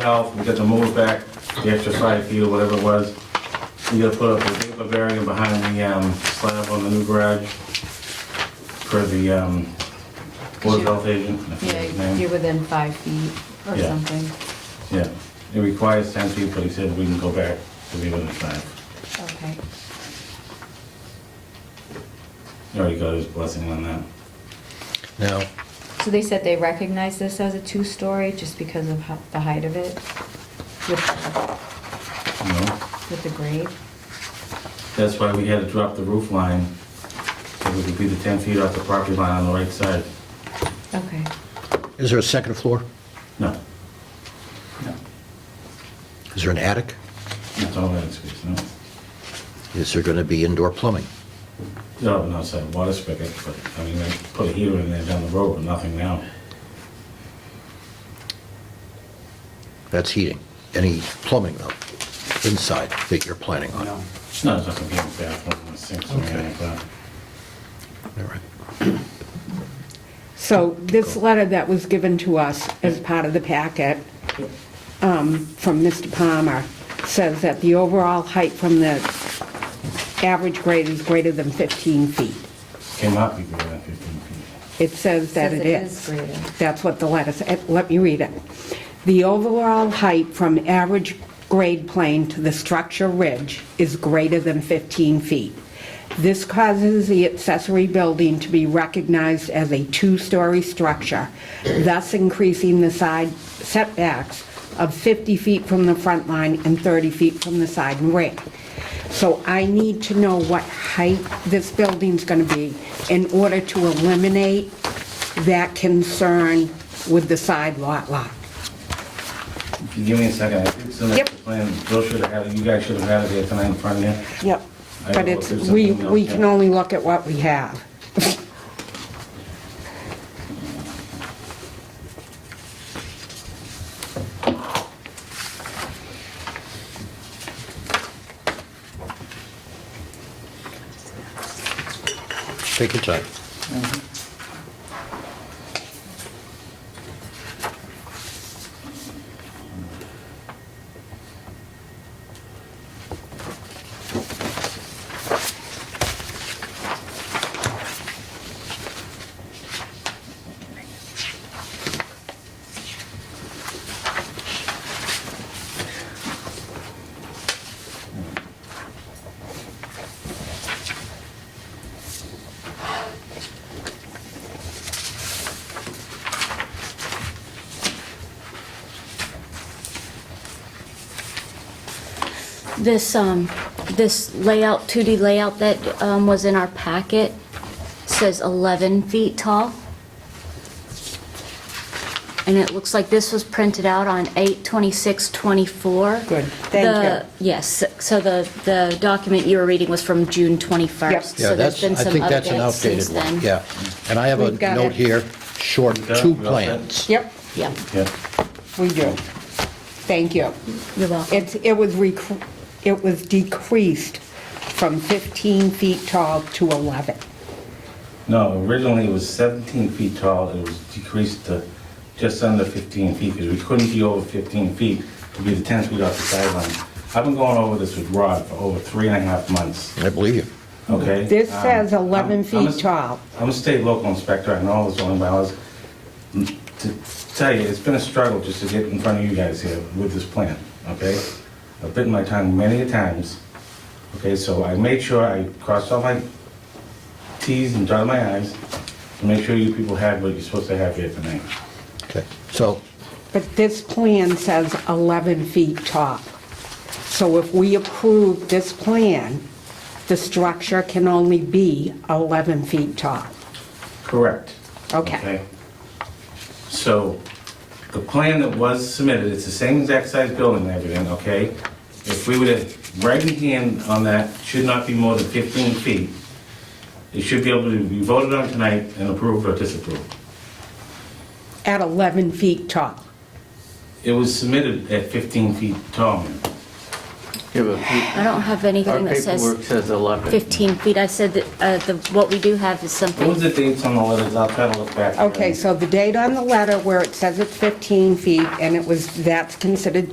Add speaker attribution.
Speaker 1: health, we got the mower back, the extra side field, whatever it was. We gotta put up a vapor barrier behind the um, slab on the new garage for the um, board of health agent. I forget his
Speaker 2: Yeah,
Speaker 1: name.
Speaker 2: you're within five feet or
Speaker 1: Yeah.
Speaker 2: something.
Speaker 1: Yeah, it requires ten feet, but he said we can go back to be within five.
Speaker 2: Okay.
Speaker 1: He already got his blessing on that.
Speaker 3: Now,
Speaker 2: So they said they recognize this as a two-story just because of how- the height of it with,
Speaker 1: You know,
Speaker 2: with the grade?
Speaker 1: that's why we had to drop the roof line, so we could be the ten feet off the property line on the right side.
Speaker 2: Okay.
Speaker 3: is there a second floor?
Speaker 1: No. No.
Speaker 3: Is there an attic?
Speaker 1: That's all that space, no.
Speaker 3: Is there going to be indoor plumbing?
Speaker 1: No, an outside water spigot, but, I mean, they put a heater in there down the road, but nothing now.
Speaker 3: That's heating. Any plumbing, though, inside that you're planning on? All
Speaker 1: It's not, it's not gonna be a bathroom, or sinks or anything like that.
Speaker 3: right.
Speaker 4: So this letter that was given to us as part of the packet um, from Mr. Palmer says that the overall height from the average grade is greater than 15 feet.
Speaker 1: Cannot be greater than fifteen feet.
Speaker 4: It says that
Speaker 2: Says
Speaker 4: it
Speaker 2: it
Speaker 4: is.
Speaker 2: is greater.
Speaker 4: That's what the letter said. Eh, Let me read it. The overall height from average grade plane to the structure ridge is greater than 15 feet. This causes the accessory building to be recognized as a two-story structure, thus increasing the side setbacks of 50 feet from the front line and 30 feet from the side and rear. So I need to know what height this building's going to be in order to eliminate that concern with the side lot lot.
Speaker 1: If you give me a second, I think some of the
Speaker 4: Yep.
Speaker 1: plan, Bill should have had it, you guys should have had it there tonight in front of you.
Speaker 4: Yep.
Speaker 1: I
Speaker 4: But
Speaker 1: will
Speaker 4: it's,
Speaker 1: do
Speaker 4: we,
Speaker 1: something
Speaker 4: we
Speaker 1: else,
Speaker 4: can
Speaker 1: yeah.
Speaker 4: only look at what we have.
Speaker 3: Take your time.
Speaker 5: This, um, this layout, 2D layout that, um, was in our packet says 11 feet tall. And it looks like this was printed out on 8/26/24.
Speaker 4: Good, thank you.
Speaker 5: The- Yes, so the, the document you were reading was from June 21st.
Speaker 4: Yep.
Speaker 5: So
Speaker 3: Yeah,
Speaker 5: there's
Speaker 3: that's,
Speaker 5: been
Speaker 3: I
Speaker 5: some
Speaker 3: think that's an
Speaker 5: updates since
Speaker 3: outdated one,
Speaker 5: then.
Speaker 3: yeah. And I have a
Speaker 4: We've got
Speaker 3: note
Speaker 4: it.
Speaker 3: here, short
Speaker 1: You got it?
Speaker 3: two
Speaker 1: You all set?
Speaker 3: plans.
Speaker 4: Yep,
Speaker 5: Yeah,
Speaker 1: Yeah.
Speaker 4: we do. Thank you.
Speaker 5: you're welcome.
Speaker 4: It's, it was rec, it was decreased from 15 feet tall to 11.
Speaker 1: No, originally it was seventeen feet tall, it was decreased to just under fifteen feet, because we couldn't be over fifteen feet to be the ten feet off the sideline. I've been going over this with Rod for over three and a half months.
Speaker 3: I believe you.
Speaker 1: Okay?
Speaker 4: This
Speaker 1: Um,
Speaker 4: says 11
Speaker 1: I'm- I'm a-
Speaker 4: feet tall.
Speaker 1: I'm a state local inspector, I know all the zoning bylaws. Mm, To tell you, it's been a struggle just to get in front of you guys here with this plan, okay? I've bitten my tongue many a times, okay, so I made sure I crossed all my Ts and dotted my Is to make sure you people had what you're supposed to have here tonight.
Speaker 3: Okay. So,
Speaker 4: But this plan says 11 feet tall. So if we approve this plan, the structure can only be 11 feet tall.
Speaker 1: Correct.
Speaker 4: Okay.
Speaker 1: So the plan that was submitted, it's the same exact size building and everything, okay? If we were to write in hand on that, should not be more than 15 feet. It should be able to be voted on tonight and approved or disapproved.
Speaker 4: At 11 feet tall.
Speaker 1: It was submitted at 15 feet tall.
Speaker 6: Yeah, but
Speaker 5: I don't have anything
Speaker 6: our
Speaker 5: that
Speaker 6: paperwork
Speaker 5: says
Speaker 6: says 11.
Speaker 5: 15 feet. I said that, uh, the, what we do have
Speaker 1: What was
Speaker 5: is something,
Speaker 1: the dates on the letters? I'll try to look back.
Speaker 4: Okay, so the date on the letter where it says it's 15 feet, and it was, that's considered